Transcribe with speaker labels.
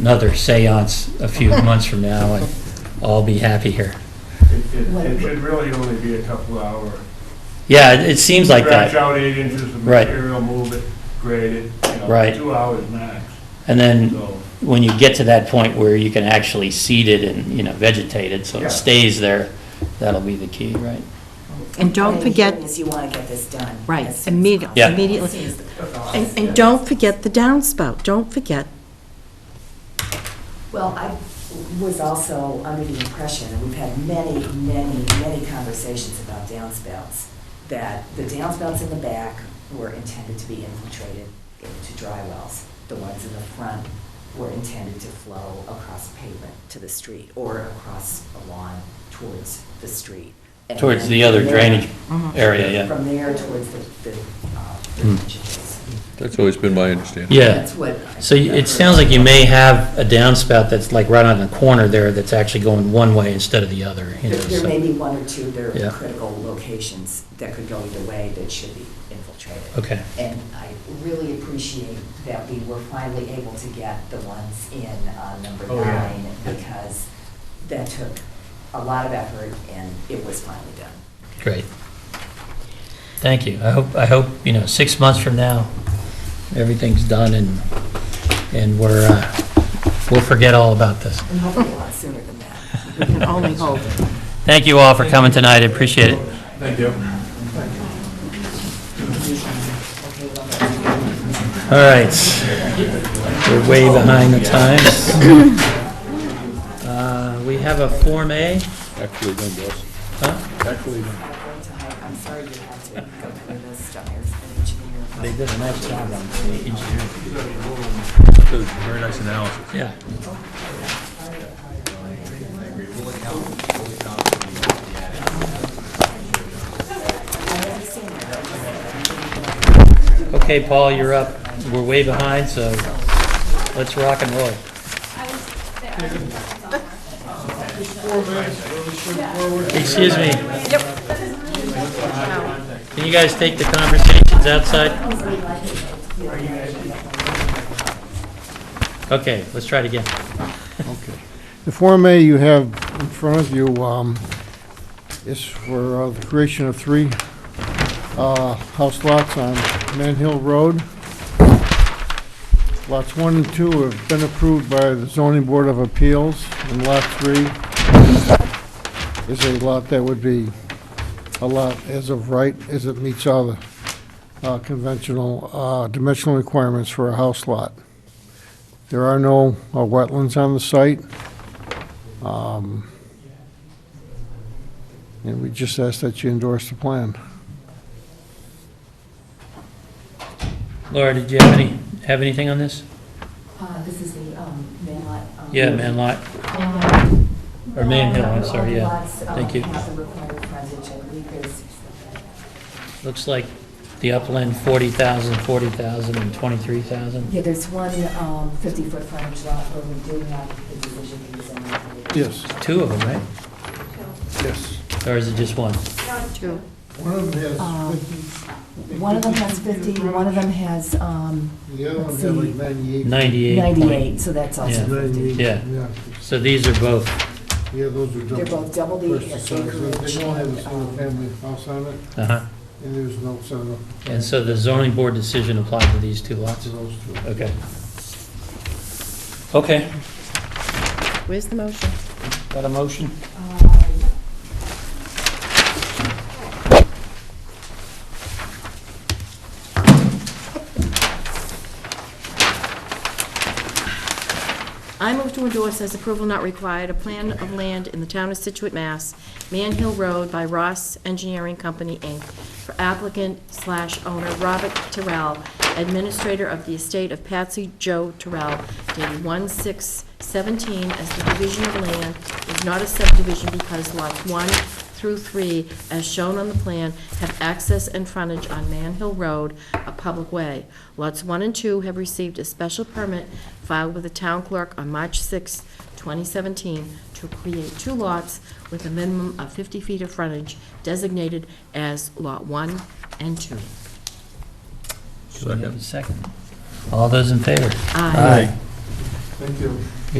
Speaker 1: another seance a few months from now, and I'll be happy here.
Speaker 2: It- It it should really only be a couple hour.
Speaker 1: Yeah, it it seems like
Speaker 2: Scratch
Speaker 1: that.
Speaker 2: out eight inches of
Speaker 1: Right.
Speaker 2: material, move it, grade it, you know,
Speaker 1: Right.
Speaker 2: two hours max.
Speaker 1: And then
Speaker 2: So,
Speaker 1: when you get to that point where you can actually seed it and, you know, vegetate it, so
Speaker 2: Yeah.
Speaker 1: it stays there, that'll be the key, right?
Speaker 3: And don't
Speaker 4: What I'm hearing
Speaker 3: forget,
Speaker 4: is you want to get this done.
Speaker 3: Right,
Speaker 4: as soon as
Speaker 3: immedi-
Speaker 4: possible.
Speaker 1: Yeah.
Speaker 3: immediately.
Speaker 4: As soon as the-
Speaker 3: and, and don't forget the downspout, don't forget.
Speaker 4: Well, I was also under the impression, and we've had many, many, many conversations about downspouts, that the downspouts in the back were intended to be infiltrated into dry wells. The ones in the front were intended to flow across pavement to the street or across a lawn towards the street. And
Speaker 1: Towards
Speaker 4: then
Speaker 1: the other
Speaker 4: from there-
Speaker 1: drainage area, yeah.
Speaker 4: Mm-hmm. From there towards the, the, uh,
Speaker 1: Hmm.
Speaker 4: ditches.
Speaker 5: That's always been my understanding.
Speaker 1: Yeah.
Speaker 4: That's what. I-
Speaker 1: So you- it sounds like you may have a downspout that's like right on the corner there that's actually going one way instead of the other. you
Speaker 4: There
Speaker 1: know,
Speaker 4: there
Speaker 1: so-
Speaker 4: may be one or two, there
Speaker 1: Yeah.
Speaker 4: are critical locations that could go either way that should be infiltrated.
Speaker 1: Okay.
Speaker 4: And I really appreciate that we were finally able to get the ones in on number
Speaker 2: Oh, yeah.
Speaker 4: nine because that took a lot of effort and it was finally done.
Speaker 1: Great. Thank you. I hope, I hope, you know, six months from now, everything's done and, and we're, uh, we'll forget all about this.
Speaker 4: And hopefully a lot sooner than that.
Speaker 3: We can only hope.
Speaker 1: Thank you all for coming tonight. I appreciate it.
Speaker 2: Thank you.
Speaker 1: All right. We're way behind the times. Uh, We have a Form A.
Speaker 5: Actually, no, boss.
Speaker 1: Huh?
Speaker 5: Actually, no.
Speaker 4: I'm sorry you had to go through this stuff. There's an engineer.
Speaker 1: They did a nice job on the engineering.
Speaker 5: That was Very nice analysis.
Speaker 1: Yeah. Okay, Paul, you're up. We're way behind, so let's rock and roll. Excuse me. Can you guys take the conversations outside? Okay, let's try it again.
Speaker 6: Okay. The Form A you have in front of you um, is for uh, the creation of three uh, house lots on Man Hill Road. Lots one and two have been approved by the zoning board of appeals, and lot three is a lot that would be a lot as of right, as it meets all the uh, conventional uh, dimensional requirements for a house lot. There are no uh, wetlands on the site. Um, And we just ask that you endorse the plan.
Speaker 1: Laura, did you have any, have anything on this?
Speaker 4: Uh, This is the um, Manlot. um,
Speaker 1: Yeah, man lot.
Speaker 4: Manlot.
Speaker 1: Or Man Hill, I'm sorry,
Speaker 4: All
Speaker 1: yeah.
Speaker 4: lots, um,
Speaker 1: Thank you.
Speaker 4: have the required frontage, I believe there's-
Speaker 1: Looks like the upland 40,000, 40,000, and 23,000.
Speaker 4: Yeah, there's one 50-foot frontage lot where we do have the division of the zoning.
Speaker 6: Yes,
Speaker 1: Two of them, right?
Speaker 6: yes.
Speaker 1: Or is it just one?
Speaker 3: True.
Speaker 6: One of them
Speaker 4: Um, One of them has 50, one of them has um,
Speaker 6: The other
Speaker 4: one had like
Speaker 6: 98.
Speaker 1: 98. point-
Speaker 4: 98, so that's also
Speaker 1: Yeah.
Speaker 4: 50.
Speaker 1: Yeah, so these are both,
Speaker 6: Yeah, those are double.
Speaker 4: They're both double the acreage.
Speaker 6: They don't have a single
Speaker 4: um,
Speaker 6: family house on it,
Speaker 1: uh-huh.
Speaker 6: and there's no son of.
Speaker 1: And so the zoning board decision applied to these two lots?
Speaker 6: To those two.
Speaker 1: Okay. Okay,
Speaker 3: Where's the motion?
Speaker 1: got a motion?
Speaker 4: Uh,
Speaker 3: I move to endorse as approval not required, a plan of land in the town of Situate, Mass., Man Hill Road by Ross Engineering Company, Inc., for applicant slash owner Robert Terrell, administrator of the estate of Patsy Joe Terrell, dated 1/6/17, as the division of land is not a subdivision because lots 1 through 3, as shown on the plan, have access and frontage on Man Hill Road, a public way. Lots 1 and 2 have received a special permit filed with the town clerk on March 6, 2017, to create two lots with a minimum of 50 feet of frontage designated as Lot 1 and 2.
Speaker 1: Do we have a Second. All those in favor?
Speaker 3: Aye.
Speaker 2: Thank you.